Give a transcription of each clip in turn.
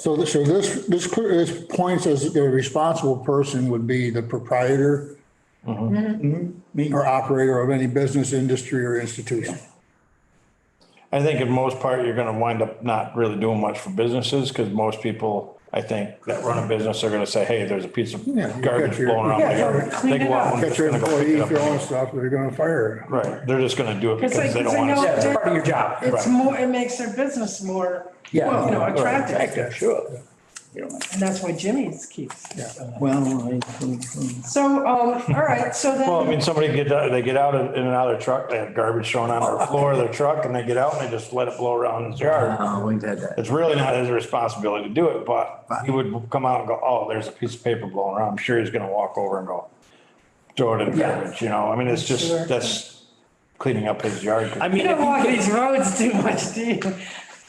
So this, so this, this, clear- this points as the responsible person would be the proprietor Mm-hmm. mm-hmm, or operator of any business, industry or institution. I think in most part, you're gonna wind up not really doing much for businesses, because most people, I think, that run a business are gonna say, hey, there's a piece of Yeah, you garbage got your- blowing around. Yeah, my yard." clean They it go out up. and Get just your gonna go pick employee, it if you up. own stuff, they're gonna fire you. Right, they're just gonna do it It's like, because they don't you want to. know, Yeah, it's part of your job. Right. It's more, it makes their business more, you Yeah. know, attractive. Attractive, sure. You know, And that's why Jimmy's keeps. Well, I, So, um, all right, so then. Well, I mean, somebody get, out- they get out in and out of their truck, they have garbage thrown on the floor of their truck, and they get out and they just let it blow around in his yard. oh, we've had that. It's really not his responsibility to do it, but he would come out and go, oh, there's a piece of paper blowing around. I'm sure he's gonna walk over and go throw it in the Yeah. garbage, you know? I mean, it's Sure. just, that's cleaning up his yard. I You mean, don't walk these roads too much, do you?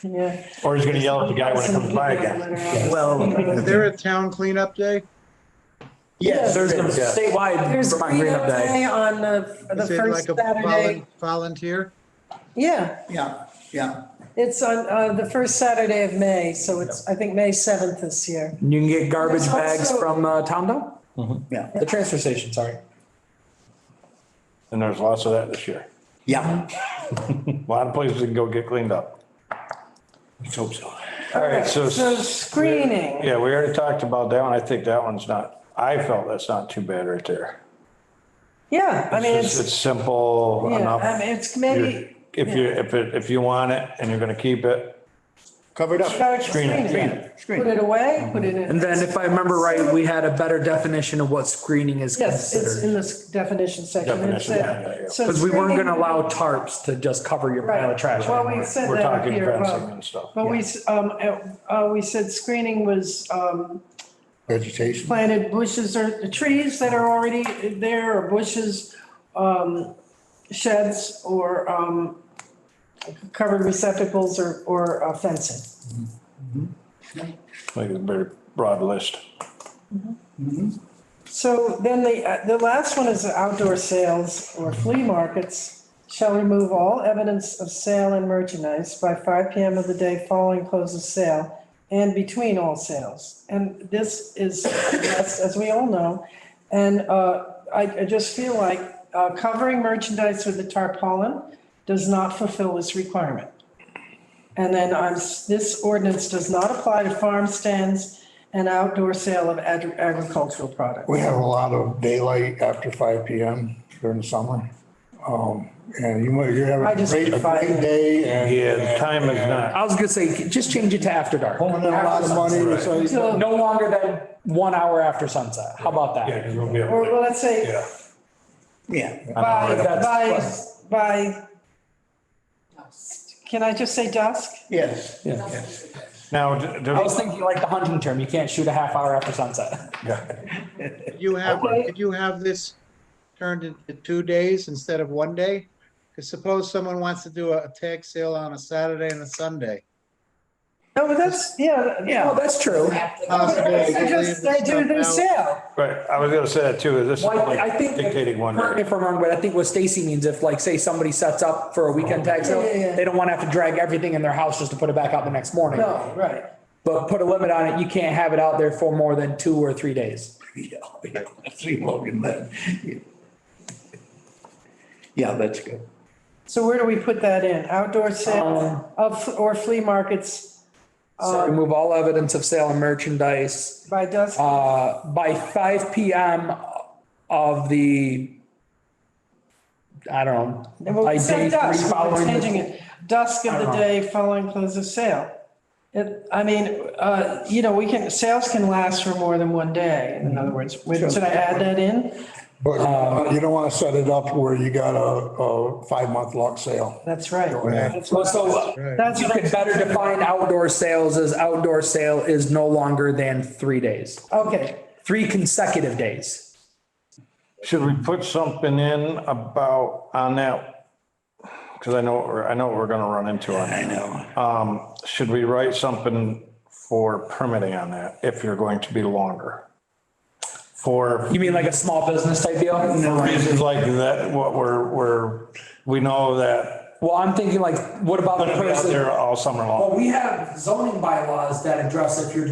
Yeah. Or he's gonna yell at the guy when it comes by again. well, Is there a town cleanup day? yes, there's a statewide There's Vermont cleanup cleanup day day. on the, the Is it first like a Saturday. volun- Volunteer? Yeah, Yeah, yeah. it's on, uh, the first Saturday of May, so it's, I think, May seventh this year. You can get garbage There's bags also- from uh, Tom Dom? Yeah. The transfer station, sorry. And there's lots of that this year. Yeah. A lot of places can go get cleaned up. Let's hope so. All right, so. So screening. Yeah, we already talked about that one. I think that one's not, I felt that's not too bad right there. Yeah, I mean, It's, it's, it's simple yeah, I enough. mean, it's You're- maybe. If you, if it, if you want it and you're gonna keep it, Covered up. Start Screen it, screening. Put it away, put it in. And then if I remember right, we had a better definition of what screening is Yes, it's considered. in this definition section. It's Definition, yeah, yeah, yeah. there. So Because we weren't screening- gonna allow tarps to just cover your pile Right. of trash. Well, anymore. we said we're that up talking here, fencing uh, and stuff. But we, s- um, uh, uh, we said screening was, um, Vegetation. planted bushes or trees that are already there or bushes, um, sheds or, um, covered receptacles or, or uh, fencing. Like a very broad list. So then the, uh, the last one is outdoor sales or flea markets shall remove all evidence of sale and merchandise by five PM of the day following close of sale and between all sales. And this is, yes, as we all know, and, uh, I, I just feel like, uh, covering merchandise with a tarpaulin does not fulfill this requirement. And then I'm, s- this ordinance does not apply to farm stands and outdoor sale of agri- agricultural products. We have a lot of daylight after five PM during the summer. Um, and you might, you're having I a just great, a find great it- day and. Yeah, the time is not, I was gonna say, just change it to after dark. Pulling in a lot of money, so. you- So, No longer than one hour after sunset. How about yeah, that? 'cause we'll be able or to- well, let's say yeah. Yeah. by, That's by, fine. by, can I just say dusk? Yes. Yeah. Now, do- do- I was thinking like the hunting term, you can't shoot a half hour after sunset. Did you have, Okay. did you have this turned into two days instead of one day? Because suppose someone wants to do a tag sale on a Saturday and a Sunday. No, but that's, yeah. Oh, that's true. Possibly They they could just, leave they do stuff their out. sale. right, I was gonna say that too, is this is Well, I I like think. dictating one. Correct me if I'm wrong, but I think what Stacy means, if like, say somebody sets up for a weekend tag sale, Yeah, yeah, yeah. they don't want to have to drag everything in their house just to put it back out the next morning. No, right. But put a limit on it, you can't have it out there for more than two or three days. Yeah. yeah. See Logan then. Yeah, that's good. So where do we put that in? Outdoor Um, sale of, or flea markets uh, So remove all evidence of sale and merchandise, by dusk? uh, by five PM of the, I don't And know. we'll like say day dusk, three we're following the- changing it. Dusk of the Uh-huh. day following close of sale. It, I mean, uh, you know, we can, sales can last for more than one day, in other words. Wait, Should I add that in? But uh, you don't want to set it up where you got a, a five-month lock sale. That's right. That's Well, what so. uh, I- that's You what I- could better define outdoor sales as outdoor sale is no longer than three days, Okay, three consecutive days. Should we put something in about, on that? Because I know, what we're- I know what we're gonna run into on I that. know. Um, should we write something for permitting on that, if you're going to be longer? For You mean like a small business type deal? reasons like that, what we're, we're, we know that Well, I'm thinking like, what about the Put it out person? there all summer long. Well, we have zoning bylaws that address if you're